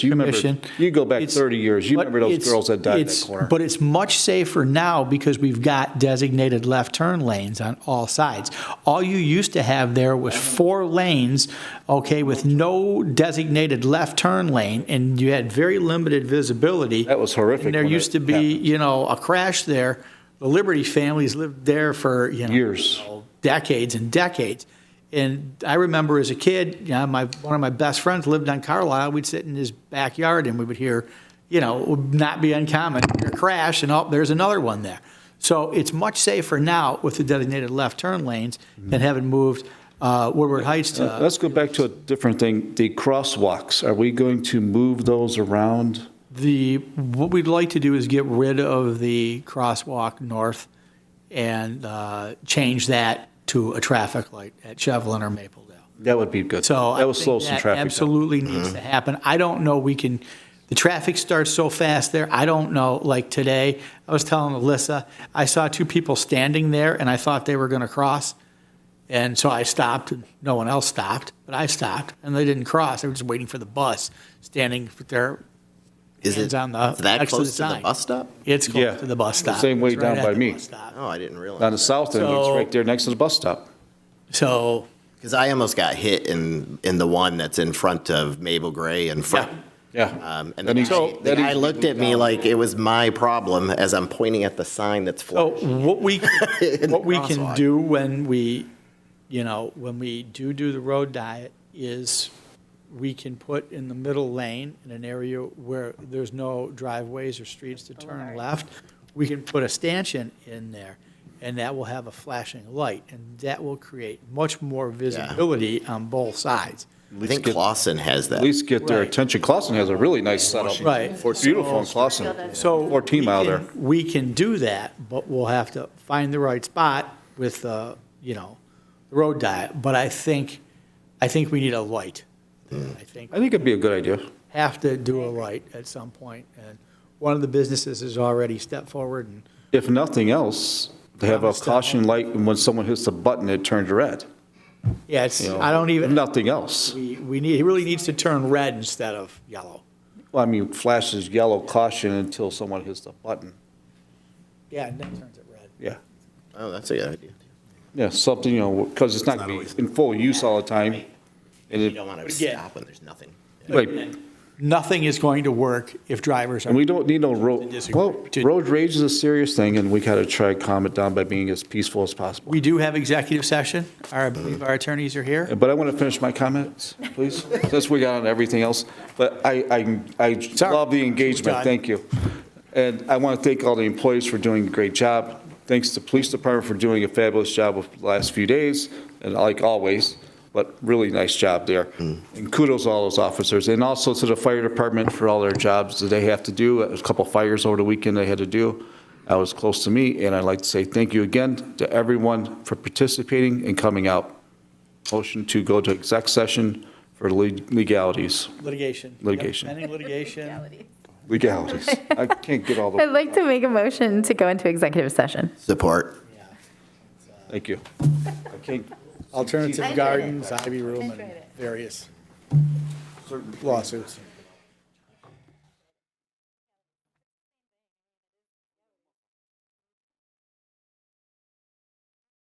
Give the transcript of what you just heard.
Do you remember- Commission. You go back It's- 30 years, you but remember those it's- girls that died in it's- that corner? But it's much safer now because we've got designated left turn lanes on all sides. All you used to have there was four lanes, okay, with no designated left turn lane, and you had very limited visibility. That was horrific And there when used it to be, happened. you know, a crash there. The Liberty families lived there for, you know. Years. Decades and decades. And I remember as a kid, you know, my, one of my best friends lived on Carlisle. We'd sit in his backyard and we would hear, you know, it would not be uncommon, hear a crash and oh, there's another one there. So it's much safer now with the designated left turn lanes than having moved uh, Woodward Heights to. Let's go back to a different thing, the crosswalks. Are we going to move those around? The, what we'd like to do is get rid of the crosswalk north and uh, change that to a traffic light at Chevlin or Mapledale. That would be good. So. I That would think slow some that traffic Mm-hmm. down. Absolutely needs to happen. I don't know, we can, the traffic starts so fast there, I don't know, like today, I was telling Alyssa, I saw two people standing there and I thought they were going to cross. And so I stopped, and no one else stopped, but I stopped, and they didn't cross. They were just waiting for the bus, standing with their Is it Hands on the- that next to close the to the sign. bus stop? It's Yeah. close to the bus stop. Same way It's right down at by the me. bus stop. Oh, I didn't On realize. the south end, it's So- right there next to the bus stop. So, Because I almost got hit in, in the one that's in front of Mabel Gray and front. Yeah. Um, That and the needs- guy, that the guy needs to be looked at me like it was my problem as I'm pointing at the sign that's Oh, so flashing. Oh, what we, In the what we can crosswalk. do when we, you know, when we do do the road diet is we can put in the middle lane in an area where there's no driveways or streets to turn left, we can put a stanchion in there and that will have a flashing light and that will create much more visibility on both sides. I think Clausen has that. At least get their Right. attention. Clausen has a really nice setup. Right. Beautiful in Clausen. So. 14 we mile can- there. We can do that, but we'll have to find the right spot with, uh, you know, the road diet. But I think, I think we need a light. I think I think it'd be a good idea. have to do a light at some point. And one of the businesses has already stepped forward and If nothing else, to have a Promise that. caution light, and when someone hits the button, it turns red. Yeah, it's, you know. I don't If even, Nothing else. we, we need, it really needs to turn red instead of yellow. Well, I mean, flashes yellow caution until someone hits the button. Yeah, and then turns it red. Yeah. Oh, that's a good idea. Yeah, something, you know, because it's not going to be in full use all the time. And You it don't want to Again. stop when there's nothing. Right, Nothing is going to work if drivers are. and we don't need no road, Disagree. well, road rage is a serious thing, and we gotta try to calm it down by being as peaceful as possible. We do have executive session. Our, I believe our attorneys are here. But I want to finish my comments, please, since we got on everything else. But I, I, I Sorry. love the engagement, John. thank you. And I want to thank all the employees for doing a great job. Thanks to Police Department for doing a fabulous job of the last few days, and like always, but really nice job there. And kudos to all those officers, and also to the Fire Department for all their jobs that they have to do. A couple fires over the weekend they had to do. That was close to me, and I'd like to say thank you again to everyone for participating and coming out. Motion to go to exec session for le- legalities. Litigation. Litigation. Pending litigation. Legalities. I can't get all the, I'd like to make a motion to go into executive session. Support. thank you. I can't, Alternative gardens, Ivy Room, and various lawsuits.